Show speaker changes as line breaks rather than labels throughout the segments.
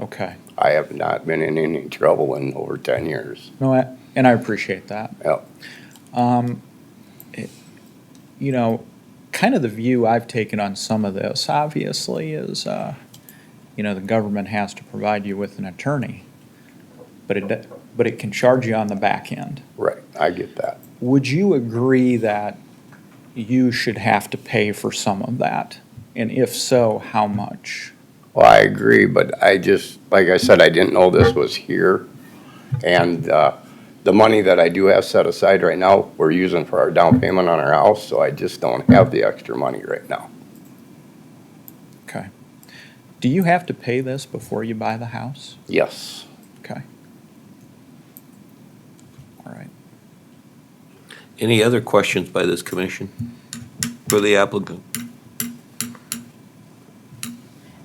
Okay.
I have not been in any trouble in over ten years.
No, I- and I appreciate that.
Yep.
You know, kind of the view I've taken on some of this, obviously, is, uh, you know, the government has to provide you with an attorney, but it, d- but it can charge you on the back end.
Right, I get that.
Would you agree that you should have to pay for some of that? And if so, how much?
Well, I agree, but I just, like I said, I didn't know this was here. And uh, the money that I do have set aside right now, we're using for our down payment on our house, so I just don't have the extra money right now.
Okay. Do you have to pay this before you buy the house?
Yes,
Okay. All right.
Any other questions by this commission for the applicant?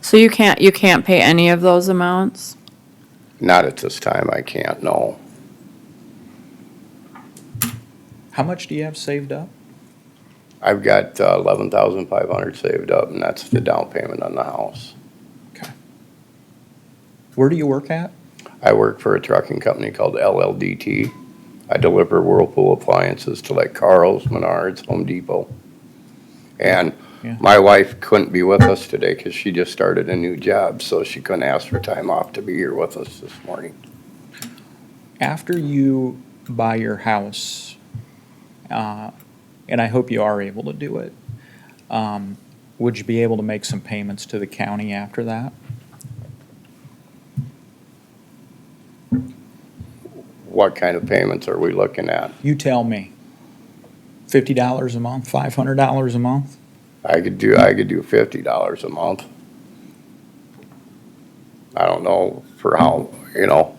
So you can't, you can't pay any of those amounts?
not at this time, I can't, no.
How much do you have saved up?
I've got uh, eleven thousand five hundred saved up, and that's the down payment on the house.
Okay. Where do you work at?
I work for a trucking company called LLDT. I deliver Whirlpool appliances to like Carl's, Menards, Home Depot. And
Yeah.
my wife couldn't be with us today because she just started a new job, so she couldn't ask for time off to be here with us this morning.
After you buy your house, uh, and I hope you are able to do it, um, would you be able to make some payments to the county after that?
What kind of payments are we looking at?
You tell me. Fifty dollars a month, five hundred dollars a month?
I could do, I could do fifty dollars a month. I don't know for how, you know.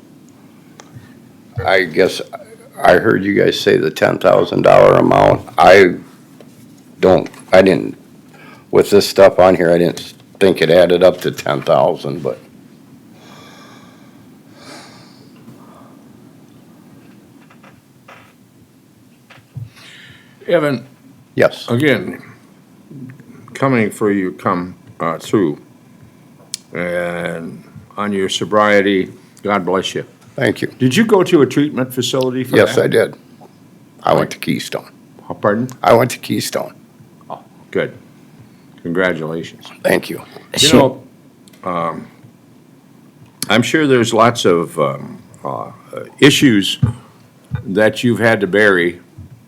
I guess, I heard you guys say the ten thousand dollar amount. I don't, I didn't, with this stuff on here, I didn't think it added up to ten thousand, but
Evan,
yes,
again, coming for you come uh, through, and on your sobriety, God bless you.
thank you.
Did you go to a treatment facility for
Yes, I
that?
did. I went to Keystone.
I did. Pardon?
I went to Keystone.
Good. Congratulations.
Thank you.
You know, um, I'm sure there's lots of um, uh, issues that you've had to bury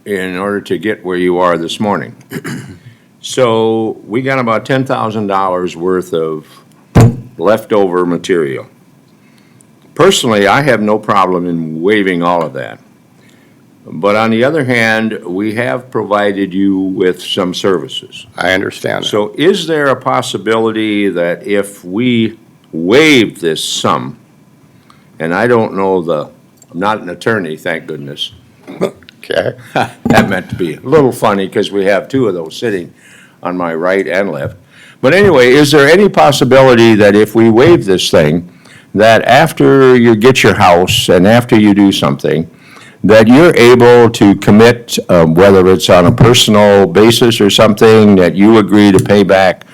in order to get where you are this morning. So we got about ten thousand dollars worth of leftover material. Personally, I have no problem in waiving all of that. But on the other hand, we have provided you with some services.
I understand. that.
So is there a possibility that if we waive this sum, and I don't know the, I'm not an attorney, thank goodness.
Okay,
That meant to be a little funny because we have two of those sitting on my right and left. But anyway, is there any possibility that if we waive this thing, that after you get your house and after you do something, that you're able to commit, um, whether it's on a personal basis or something, that you agree to pay back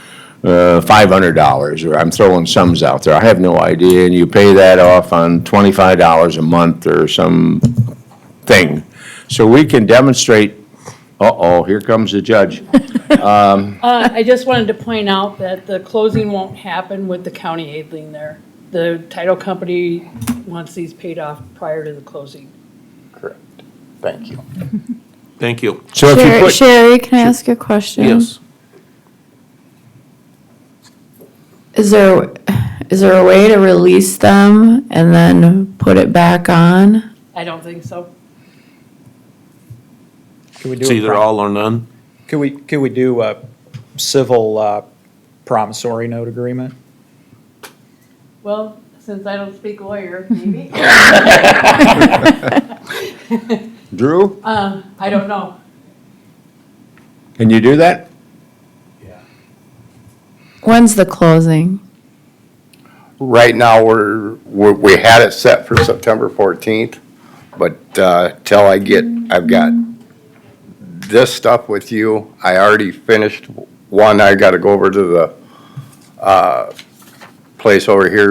uh, $500, or I'm throwing sums out there, I have no idea, and you pay that off on $25 a month or some thing. So we can demonstrate, uh-oh, here comes the judge.
Uh, I just wanted to point out that the closing won't happen with the county aid lien there. The title company wants these paid off prior to the closing.
correct. Thank you.
Thank you.
So if you
Sherry,
put,
Sherry, can I ask you a question?
Yes.
Is there, is there a way to release them and then put it back on?
I don't think so.
Can we do
It's
a
either
pro-
all or none.
Could we, could we do a civil uh, promissory note agreement?
Well, since I don't speak lawyer, maybe,
Drew,
uh, I don't know.
can you do that?
When's the closing?
Right now, we're, we we had it set for September 14th, but uh, till I get, I've got this stuff with you. I already finished one. I got to go over to the uh, place over here